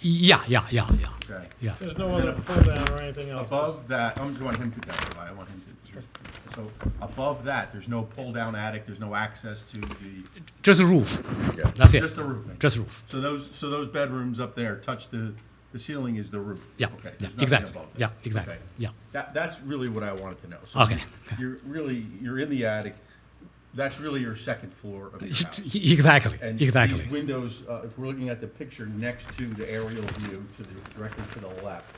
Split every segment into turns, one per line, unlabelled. Yeah, yeah, yeah, yeah,
Okay.
yeah.
There's no other pull down or anything else.
Above that, I'm just want him to testify, I want him to. So above that, there's no pull-down attic, there's no access to the,
Just a roof.
Yeah.
That's it.
just the roof.
Just roof.
So those, so those bedrooms up there touch the, the ceiling is the roof?
Yeah,
Okay,
yeah,
there's nothing
exactly.
above that.
Yeah, exactly.
Okay.
Yeah.
That, that's really what I wanted to know. So
Okay, okay.
You're really, you're in the attic, that's really your second floor of the house.
Exactly,
And
exactly.
these windows, uh, if we're looking at the picture next to the aerial view, to the, directly to the left,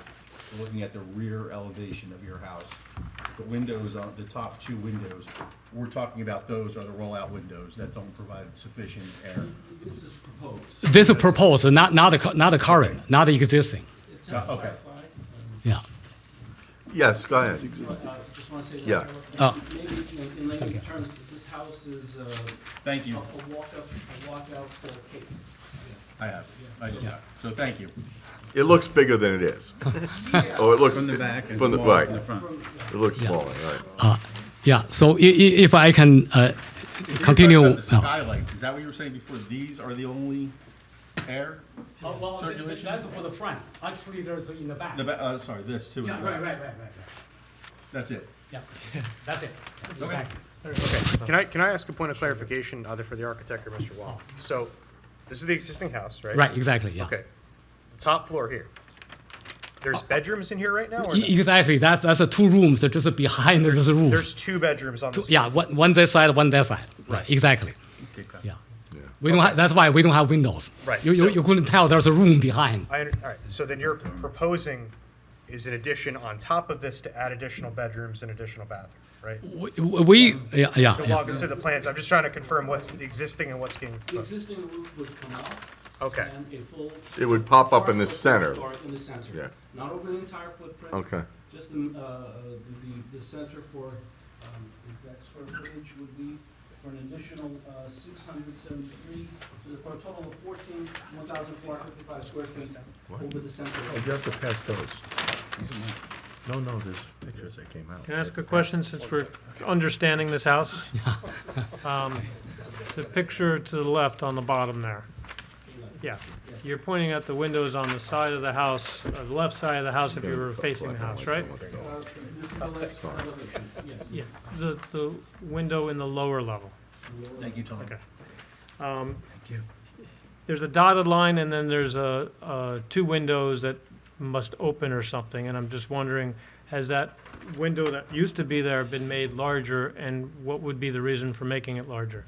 we're looking at the rear elevation of your house. The windows on, the top two windows, we're talking about those are the rollout windows that don't provide sufficient air.
This is proposed.
This is proposed, not, not the, cu- not the current, not the existing.
It's
Uh,
not
Okay,
clarified.
Yeah.
Yes, go ahead.
Um, Uh, Just want to say
Yeah.
that.
Oh.
Maybe, you know, in layman's terms, this house is uh, a
thank you.
a walk up, a walk out for a cake.
I have, I do have. So thank you.
It looks bigger than it is. Oh, it looks.
From the back and
From the,
smaller
right.
from the front.
It looks smaller, right.
Yeah, so i- i- if I can uh,
You're talking
continue.
about the
no.
Skylights, is that what you were saying before? These are the only air?
Oh, well, th- th-
Circulation?
that's for the front. Actually, there's in the back.
The, ba- uh, sorry, this too.
Yeah, right, right, right, right, right.
That's it.
Yeah, that's it. Exactly.
Can I, can I ask a point of clarification either for the architect or Mr. Wall? So, this is the existing house, right?
Right, exactly, yeah.
Okay. Top floor here.
Uh,
There's bedrooms in here right now, or no?
E- Exactly, that's, that's the two rooms, they're just behind the just roof.
There's two bedrooms on this.
Yeah, one, one this side, one that side. Right, exactly. Yeah. We don't have, that's why we don't have windows.
Right,
You,
so-
you, you couldn't tell there's a room behind.
I, under- all right, so then you're proposing is an addition on top of this to add additional bedrooms and additional bathroom, right?
We, we yeah, yeah,
To
yeah.
walk us through the plans, I'm just trying to confirm what's the existing and what's being
The
proposed.
existing roof would come out.
Okay.
And a full.
It would pop up in
partial full
the center.
story In the center.
Yeah.
Not over the entire footprint.
Okay.
Just the, uh, the, the, the center for, um, exact square footage would be for an additional, uh, six hundred seventy-three, so for a total of fourteen, one thousand four hundred fifty-five square feet over the center.
Oh.
You have to pass those. No, no, there's pictures that came out.
Can I ask a question since we're understanding this house? Um, The picture to the left on the bottom there. Yeah, you're pointing at the windows on the side of the house, uh, the left side of the house if you were facing the house, right?
Uh, This is the left elevation, yes.
Yeah, the, the window in the lower level.
Thank you, Tom.
Okay. Um, There's a dotted line, and then there's a, uh, two windows that must open or something, and I'm just wondering, has that window that used to be there been made larger, and what would be the reason for making it larger?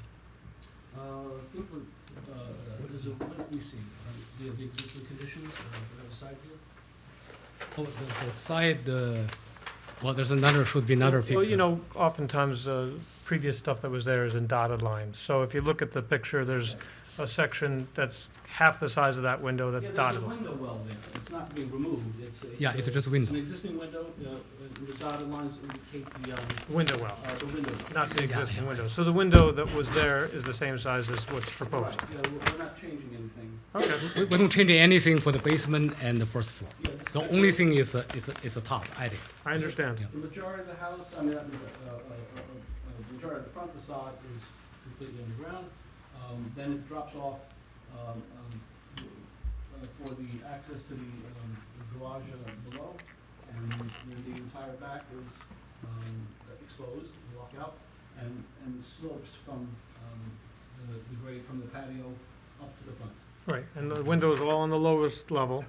Uh, I think we're, uh, there's a, let me see, um, the, the existing condition, uh, we have a side view.
Oh, the, the side, the, well, there's another, should be another picture.
uh, Well, you know, oftentimes, uh, previous stuff that was there is in dotted lines, so if you look at the picture, there's a section that's half the size of that window that's
Yeah, there's
dotted.
a
line.
window well there, it's not being removed, it's.
Yeah, it's
uh,
just a
It's an
window.
existing window, uh, and the dotted lines indicate the, um,
Window well,
uh, the window.
not the existing
yeah.
window. So the window that was there is the same size as what's
Right,
proposed?
yeah, we're, we're not changing anything.
Okay,
We, we don't change anything for the basement and the first floor.
Yeah, this
The
is-
only thing is, uh, is, is the top attic.
I understand.
The majority of the house, I mean, uh, uh, uh, uh, uh, the majority of the front facade is completely underground. Um, Then it drops off um, um, uh, for the access to the um, the garage uh, below. And then the entire back is um, exposed, you walk out, and, and slopes from um, the the grade from the patio up to the front.
Right, and the windows all on the lowest level,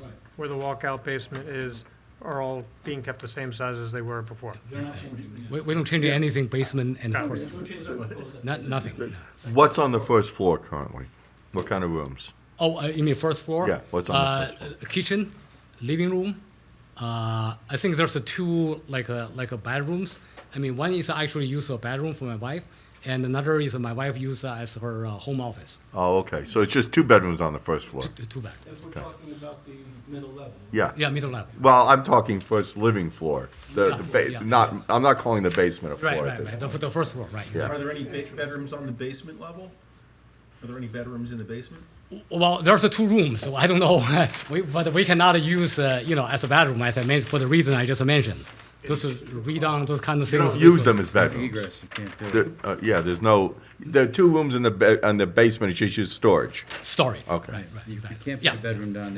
Right,
where the walkout basement is, are all being kept the same size as they were before.
they're not changing.
We, we don't change anything basement and
Got it.
first
There's
floor.
no change that proposed.
Not, nothing.
What's on the first floor currently? What kind of rooms?
Oh, uh, you mean first floor?
Yeah, what's on the first
uh, floor? Kitchen, living room. Uh, I think there's a two like a, like a bedrooms. I mean, one is actually used as a bedroom for my wife, and another is my wife used as her uh, home office.
Oh, okay, so it's just two bedrooms on the first floor?
Two, two bedrooms.
If we're talking about the middle level.
Yeah.
Yeah, middle level.
Well, I'm talking first living floor, the, the
Yeah.
ba, not, I'm not calling the basement a floor
Right,
at
right,
this
right. The, the first floor, right.
Yeah.
Are there any ba- bedrooms on the basement level? Are there any bedrooms in the basement?
Well, there's a two rooms, so I don't know. we, but we cannot use uh, you know as a bedroom as I mentioned for the reason I just mentioned. Just read on those kind of
You
things.
don't use them as bedrooms.
Egress, you can't do it.
There- uh, yeah, there's no, there are two rooms in the, ba- in the basement, it's just used storage.
Story.
Okay.
Right, right, exactly.
Can't
yeah.
put a bedroom down there.